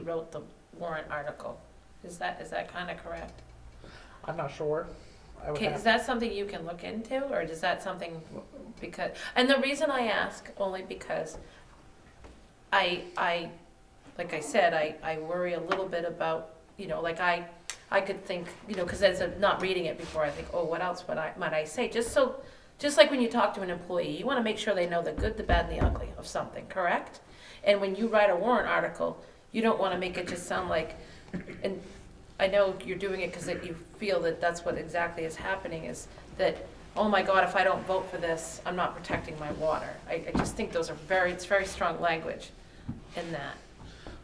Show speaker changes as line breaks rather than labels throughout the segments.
wrote the warrant article. Is that, is that kind of correct?
I'm not sure. I would
Okay, is
have,
that something you can look into, or is that something because, and the reason I ask only because I, I, like I said, I, I worry a little bit about, you know, like I, I could think, you know, because as I'm not reading it before, I think, oh, what else would I, might I say? Just so, just like when you talk to an employee, you want to make sure they know the good, the bad, and the ugly of something, correct? And when you write a warrant article, you don't want to make it just sound like, and I know you're doing it because you feel that that's what exactly is happening, is that, oh my God, if I don't vote for this, I'm not protecting my water. I, I just think those are very, it's very strong language in that.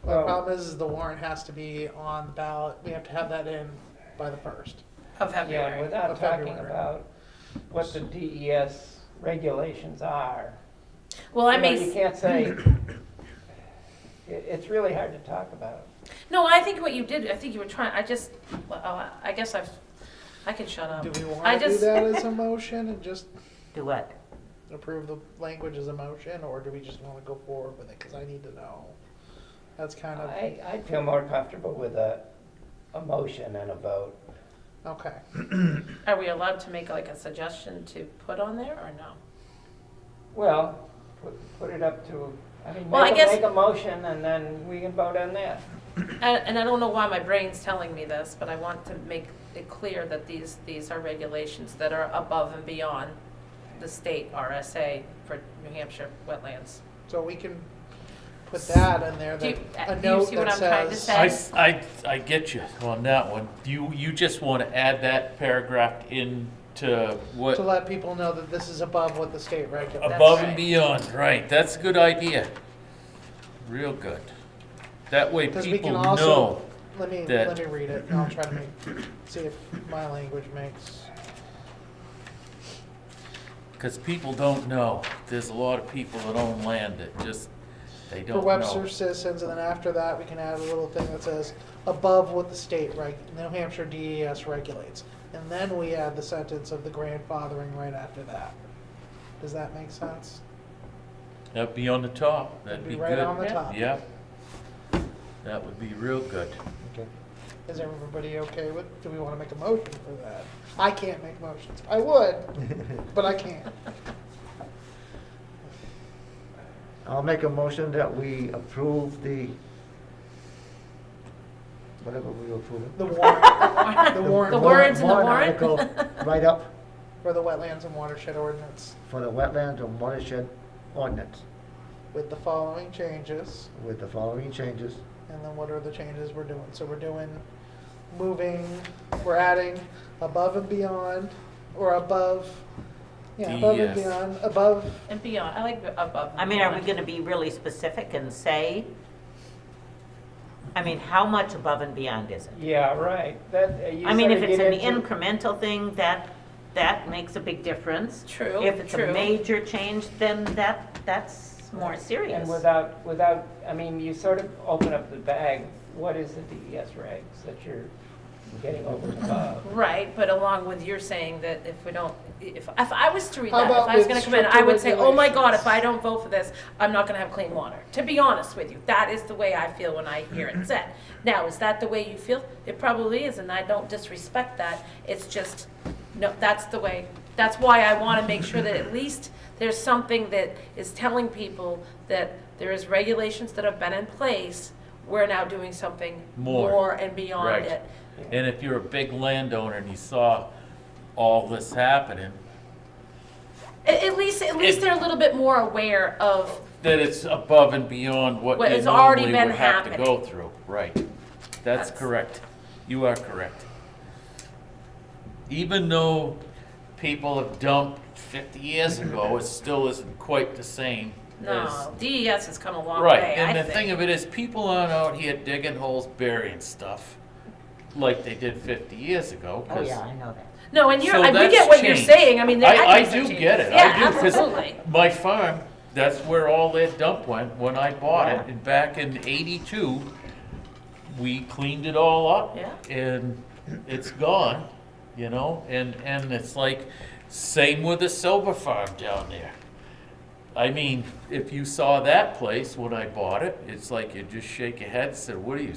the problem is, is the warrant has to be on the ballot. We have to have that in by the first.
Of
Yeah,
February.
without
Of
talking
February.
about what the DES regulations are.
Well, I
You know, You
may,
can't say, it, it's really hard to talk about.
no, I think what you did, I think you were trying, I just, well, I I guess I've, I can shut up.
Do we
I
want to do
just-
that as a motion and just
Um, Do what?
approve the language as a motion, or do we just want to go forward with it? Because I need to know. That's kind of,
I, I'd feel more comfortable with a, a motion and a vote.
okay.
Are we allowed to make like a suggestion to put on there or no?
Well, put, put it up to, I mean,
Well, I
make a,
guess-
make a motion and then we can vote on that.
And, and I don't know why my brain's telling me this, but I want to make it clear that these, these are regulations that are above and beyond the state RSA for New Hampshire wetlands.
So we can put that in there,
Do
that,
you- uh,
a
do you
note
see what
that
I'm trying to
says.
say?
I, I, I get you on that one. You, you just want to add that paragraph into
To
what,
let people know that this is above what the state regulates.
above
right.
and beyond, right, that's a good idea. Real good. That way
Because we
people
can also,
know.
let me,
that-
let me read it, and I'll try to make, see if my language makes.
Because people don't know. There's a lot of people that own land that just, they
For
don't know.
Webster citizens, and then after that, we can add a little thing that says, above what the state reg, New Hampshire DES regulates. And then we add the sentence of the grandfathering right after that. Does that make sense?
That'd be on the top, that'd
It'd
be
Right on
good.
Yeah.
the top.
Yep. That would be real good.
Is everybody okay with, do we wanna make a motion for that? I can't make motions. I would, but I can't.
I'll make a motion that we approve the, whatever we approve.
The warrant
The
warrant- The
words in the warrant?
article Right up
for the wetlands and watershed ordinance
for the wetlands and watershed ordinance
with the following changes.
with the following changes.
And then what are the changes we're doing? So we're doing, moving, we're adding above and beyond, or above, yeah, above and
Yes.
beyond, above,
And beyond, I like the above. and
I mean, are we
beyond.
gonna be really specific and say? I mean, how much above and beyond is it?
Yeah, right, that, you
I mean, if
sort of
it's
get
an
into-
incremental thing, that, that makes a big difference.
True,
If it's
true.
a major change, then that, that's more serious.
And without, without, I mean, you sort of open up the bag, what is the DES regs that you're getting over and above?
Right, but along with your saying that if we don't, if, if I was to read
How
that, if
about
I was
with
gonna come in,
stricter
I would say, oh my God, if
regulations?
I don't vote for this, I'm not gonna have clean water. To be honest with you, that is the way I feel when I hear it said. Now, is that the way you feel? It probably is, and I don't disrespect that. It's just, no, that's the way, that's why I wanna make sure that at least there's something that is telling people that there is regulations that have been in place. We're now doing something
More.
more and beyond
Right.
it.
And if you're a big landowner and you saw all this happening,
At, at least, at least
It-
they're a little bit more aware of,
that it's above and beyond what
What
you
has already
normally
been
would have to
happening.
go through. Right. That's
That's-
correct. You are correct. Even though people have dumped 50 years ago, it still isn't quite the same as
no, DES has come a long
Right,
way,
and
I
the thing
think.
of it is, people aren't out here digging holes, burying stuff like they did 50 years ago.
Oh,
'cause-
yeah, I know that.
No, and you're,
So
I- we
that's
get what you're
changed.
saying, I mean, there-
I, I
I think
do
some
get
changes.
it.
Yeah,
I do
absolutely.
my farm, that's where all their dump went when I bought it. And back in '82, we cleaned it all up,
Yeah.
and it's gone. You know, and and it's like same with the silver farm down there. I mean, if you saw that place when I bought it, it's like you just shake your head, and said, what are you,